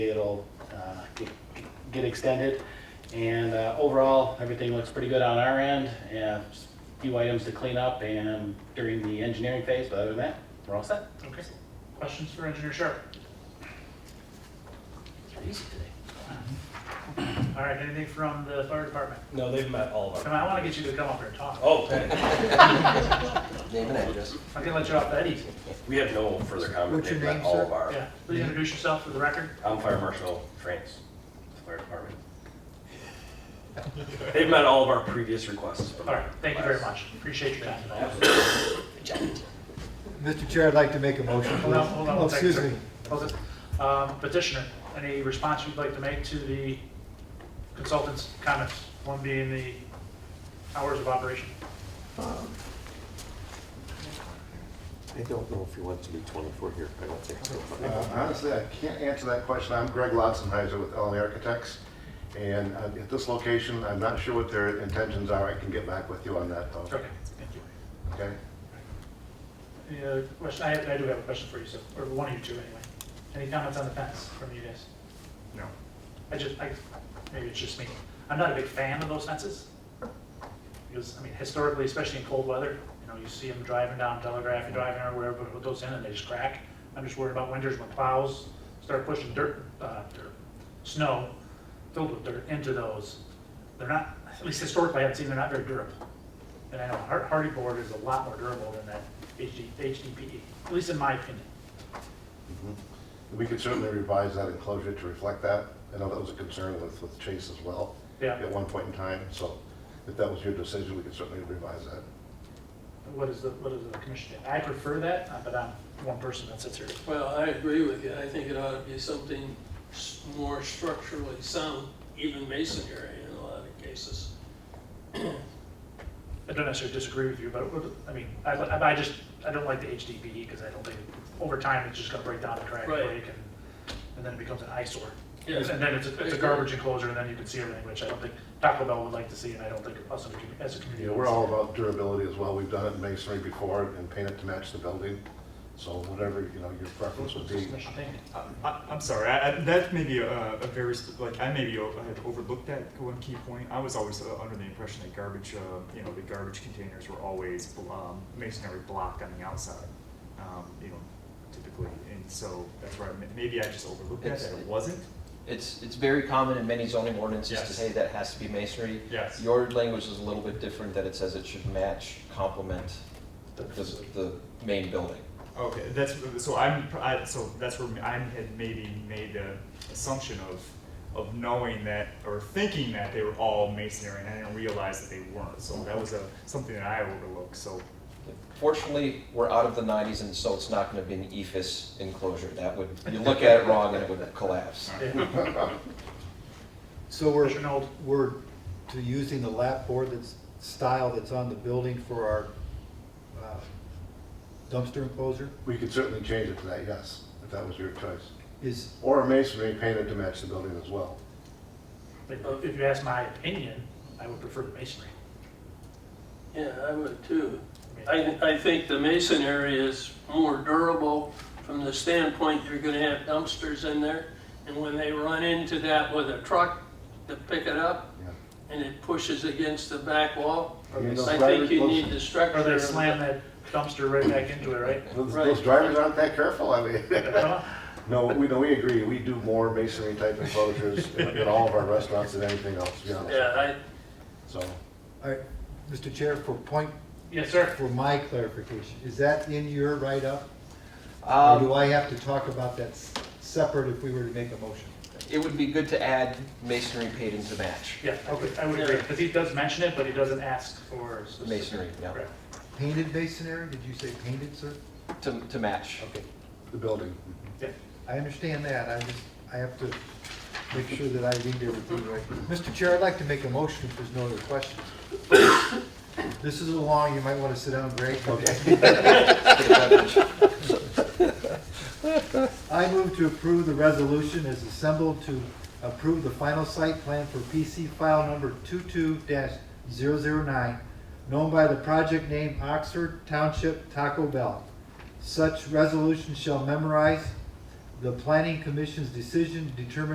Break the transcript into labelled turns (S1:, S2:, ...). S1: It'll uh, get- get extended. And uh, overall, everything looks pretty good on our end. And just a few items to clean up and during the engineering phase, but other than that, we're all set.
S2: Okay, questions for Engineer Sharp? All right, anything from the fire department?
S3: No, they've met all of
S2: Come
S3: our.
S2: on, I want to get you to come up here and talk.
S3: Oh, okay.
S4: Name and address.
S2: I can let you off that easy.
S3: We have no further comment.
S5: What's your
S3: They've met
S5: name,
S3: all
S5: sir?
S3: of our.
S2: Yeah, please introduce yourself for the record.
S3: I'm Fire Marshal France, Fire Department. They've met all of our previous requests.
S2: All right, thank you very much. Appreciate your time.
S3: Absolutely.
S5: Mr. Chair, I'd like to make a motion, please.
S2: Hold on, hold on.
S5: Oh,
S2: one second,
S5: Excuse
S2: sir.
S5: me.
S2: Hold it. Um, Petitioner, any response you'd like to make to the consultant's comments? One being the hours of operation.
S4: I don't know if you want to be 24 here, I don't think so.
S6: Uh, Honestly, I can't answer that question. I'm Greg Lotzenheiser with LA Architects. And uh, at this location, I'm not sure what their intentions are. I can get back with you on that though.
S2: Okay, thank you.
S6: Okay?
S2: Any other question? I, I do have a question for you, so, or one of you two anyway. Any comments on the fence from you guys?
S6: No.
S2: I just, I, maybe it's just me. I'm not a big fan of those fences. Because, I mean, historically, especially in cold weather, you know, you see them driving down Telegraph, you're driving or wherever, with those in and they just crack. I'm just worried about winters when plows start pushing dirt, uh, dirt, snow filled with dirt into those. They're not, at least historically, I've seen they're not very durable. And I know har- hardy board is a lot more durable than that HD, HDPE, at least in my opinion.
S6: We could certainly revise that enclosure to reflect that. I know that was a concern with, with Chase as well.
S2: Yeah.
S6: At one point in time. So if that was your decision, we could certainly revise that.
S2: What is the, what is the commission? think? I prefer that, uh, but I'm one person that sits here.
S7: Well, I agree with you. I think it ought to be something s- more structurally sound, even masonry in a lot of cases.
S2: I don't necessarily disagree with you, but, it would- I mean, I, I I just, I don't like the HDPE because I don't think, over time, it's just gonna break down and crack and
S7: Right.
S2: break and, and then it becomes an eyesore.
S7: Yeah.
S2: And then it's, a- it's a garbage enclosure and then you can see everything, which I don't think Taco Bell would like to see and I don't think us as a commu- as a community.
S6: You know, we're all about durability as well. We've done it in masonry before and paint it to match the building. So whatever, you know, your preference would be.
S2: Commission thing.
S8: I, Uh, I- I'm sorry. I, I, that may be a, a very sp- like I maybe o- I had overlooked that one key point. I was always uh, under the impression that garbage, uh, you know, the garbage containers were always bl- um, masonry block on the outside, um, you know, typically. And so that's where I, ma- maybe I just overlooked that.
S4: It's-
S8: That it wasn't.
S9: It's, it's very common in many zoning ordinances to
S8: Yes.
S9: say that has to be masonry.
S8: Yes.
S9: Your language is a little bit different, that it says it should match, complement
S2: The
S9: the,
S2: facility.
S9: the main building.
S8: Okay, that's so I'm I, so that's where I had maybe made the assumption of of knowing that or thinking that they were all masonry, and I didn't realize that they weren't. So that was a something that I overlooked. So
S9: Fortunately, we're out of the nineties and so it's not gonna be an E EFIS enclosure. That would, you look at it wrong and it would collapse.
S2: Yeah.
S5: So we're,
S2: Commissioner Nold.
S5: we're to using the lap board that's, style that's on the building for our uh, dumpster enclosure?
S6: We could certainly change it to that, yes, if that was your choice.
S5: Is,
S6: Or masonry painted to match the building as well.
S2: Like, If you ask my opinion, I would prefer the masonry.
S7: Yeah, I would too.
S2: I mean,
S7: I, I think the masonry is more durable from the standpoint you're gonna have dumpsters in there, and when they run into that with a truck to pick it up,
S6: Yeah.
S7: and it pushes against the back wall,
S6: I mean, those
S7: I
S6: drivers-
S7: think you
S6: those-
S7: need the structure.
S2: Or they
S7: of
S2: slam
S7: the-
S2: that dumpster right back into it, right?
S6: Those,
S7: Right.
S6: those drivers aren't that careful, I mean.
S2: Uh,
S6: No, we, no, we agree, we do more masonry type enclosures in in all of our restaurants than anything else, to be honest.
S7: Yeah,
S6: So,
S5: all right, Mr. Chair, for point,
S2: Yes, sir.
S5: for my clarification, is that in your write-up? Or do
S9: Um,
S5: I have to talk about that s- separate if we were to make a motion?
S9: it would be good to add masonry paid into match.
S2: Yeah, I would- I would agree, because he does mention it, but he doesn't ask for. specific-
S9: Masonry, yeah.
S2: Correct.
S5: Painted masonry, did you say painted, sir?
S9: To, to match.
S5: Okay,
S6: the building.
S2: Yeah.
S5: I understand that, I just, I have to make sure that I read everything right. Mr. Chair, I'd like to make a motion if there's no other questions. This is a long, you might want to sit down, Greg.
S9: To the beverage.
S5: I move to approve the resolution as assembled to approve the final site plan for PC file number 22-009, known by the project name Oxford Township Taco Bell. Such resolution shall memorize the planning commission's decision determines